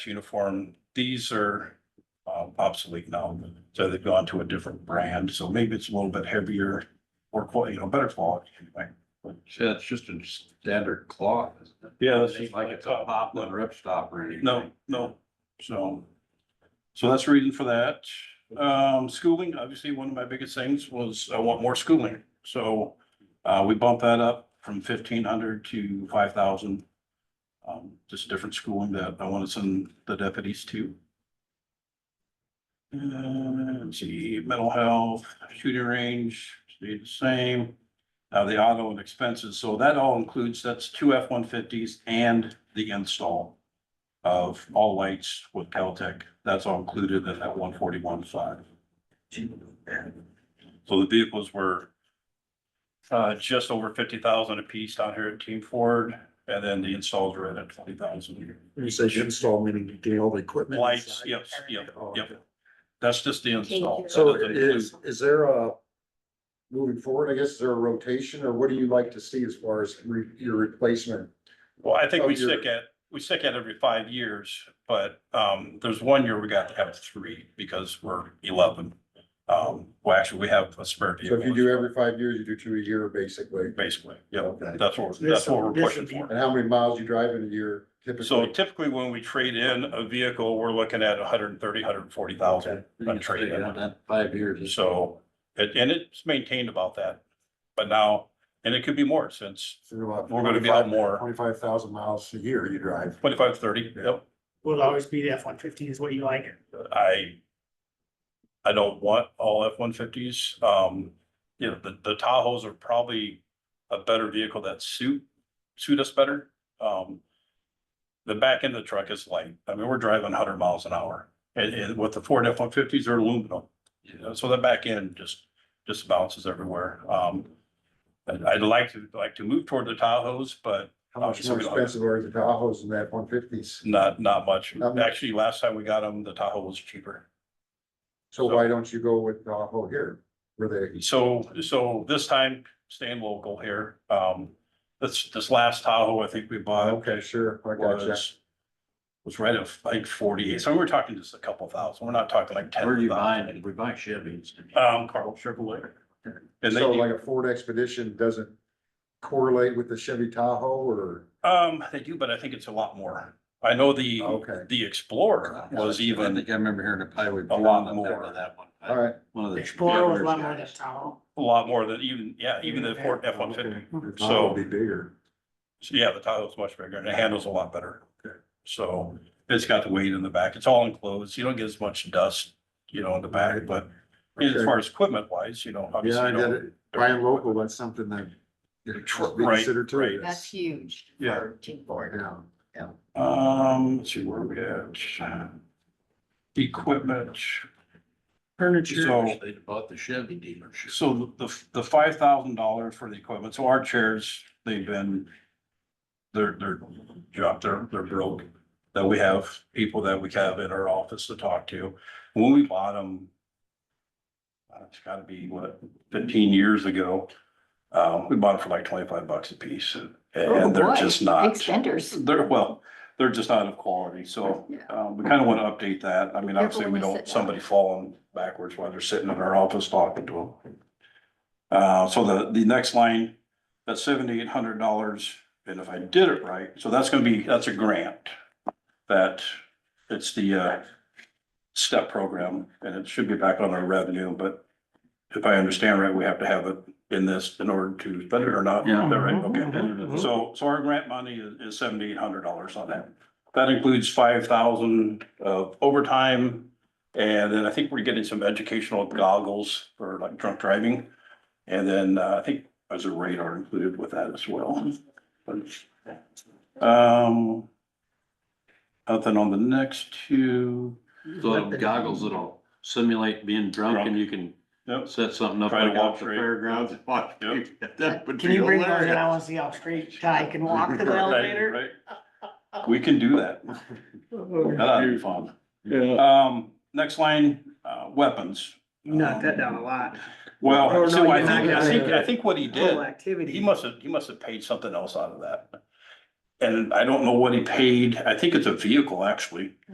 uniform, these are uh, obsolete now. So they've gone to a different brand, so maybe it's a little bit heavier or quality, you know, better quality anyway. Yeah, it's just a standard cloth, isn't it? Yeah, It's not like it's a pop and rip stop or anything. No, no, so. So that's the reason for that. Um, schooling, obviously, one of my biggest things was I want more schooling, so. Uh, we bumped that up from fifteen hundred to five thousand. Um, just different schooling that I want to send the deputies to. And let's see, mental health, shooting range, stayed the same. Uh, the auto and expenses, so that all includes, that's two F one fifties and the install of all lights with Caltech. That's all included in that one forty-one five. So the vehicles were uh, just over fifty thousand apiece down here at Team Ford, and then the installs were at twenty thousand. You say install meaning getting all the equipment. Lights, inside? yes, yep, Oh, yep. okay. That's just the install. So That doesn't include- is, is there a, moving forward, I guess, is there a rotation or what do you like to see as far as re- your replacement? Well, I think Oh, we you're- stick at, we stick at every five years, but um, there's one year we got to have three because we're eleven. Um, well, actually, we have a spare. So if you vehicle. do every five years, you do two a year basically. Basically, yeah, Okay. that's what, that's what we're pushing for. And how many miles you drive in a year So typically? typically when we trade in a vehicle, we're looking at 130, hundred and thirty, hundred and forty thousand. You can trade stay it. on that Five years. So, it- and it's maintained about that. But now, and it could be more since we're gonna be out more, Twenty-five thousand miles a year you drive. twenty-five, thirty, yep. will always be the F one fifty is what you like. I, I don't want all F one fifties. Um, you know, the, the Tahoes are probably a better vehicle that suit, suit us better. Um, the back end of the truck is light. I mean, we're driving hundred miles an hour and, and with the Ford F one fifties are aluminum. You know, so the back end just, just bounces everywhere. Um, and I'd like to, like to move toward the Tahoes, but How much more expensive are the Tahoes than that one fifties? not, not much. Not much. Actually, last time we got them, the Tahoe was cheaper. So why don't you go with Tahoe here? Where they, So, so this time, staying local here, um, this, this last Tahoe, I think we bought okay, sure, I got you. was. Was right at like forty-eight, so we're talking just a couple thousand, we're not talking like ten. Where do you buy it? We buy Chevys. Um, Carl Chevrolet. And they, So do- like a Ford Expedition doesn't correlate with the Chevy Tahoe or, um, they do, but I think it's a lot more. I know the, okay, the Explorer was I even think I remember hearing a highway. a lot Patrol more. on That one. all right. One of the. Explorer was a lot Chevys more than guys. Tahoe. a lot more than even, yeah, even the Ford F one fifty. The So- Tahoe would Be bigger. So yeah, the Tahoe's much bigger and it handles a lot better. So it's got the weight in the back. It's all enclosed. You don't get as much dust, you know, in the back, but as Okay. far as equipment wise, you know, Yeah, obviously. I you get don't- it. Buying local, that's something that you should be Right, considered right. too. That's huge. Yeah. for Team Ford. Yeah. Um, let's see where we at. Equipment. Furniture. So- They bought the Chevy dealership. So the, the five thousand dollars for the equipment, so our chairs, they've been, they're, they're dropped, they're, they're broke. That we have people that we have in our office to talk to. When we bought them, uh, it's gotta be what, fifteen years ago. Um, we bought them for like twenty-five bucks a piece and they're Oh, boy. just not. Extenders. They're, well, they're just not of quality, so, Yeah. um, we kind of want to update that. I mean, obviously, we Everyone is don't, sitting somebody falling backwards while they're sitting in our office talking to them. Uh, so the, the next line, that's seventy-eight hundred dollars, and if I did it right, so that's gonna be, that's a grant. That, it's the, uh, step program, and it should be back on our revenue, but if I understand right, we have to have it in this in order to spend it or not. Is that Mm-hmm. right? Okay. So, so our grant money is, is seventy-eight hundred dollars on that. That includes five thousand of overtime. And then I think we're getting some educational goggles for like drunk driving. And then uh, I think there's a radar included with that as well. Um. Nothing on the next two. So the goggles that'll simulate being drunk and you can Yep. set something up Try to like out walk at the straight. fairgrounds. and watch Yep. people. That would Can be you bring those and I hilarious. wanna see how straight Ty can walk to the Right, elevator? right. We can do that. That'd be fun. Yeah. Um, next line, uh, weapons. You knocked that down a lot. Well, Or so no, I you think, knocked I it think, down. I think what he did, Whole activity. he must have, he must have paid something else out of that. And I don't know what he paid. I think it's a vehicle, actually.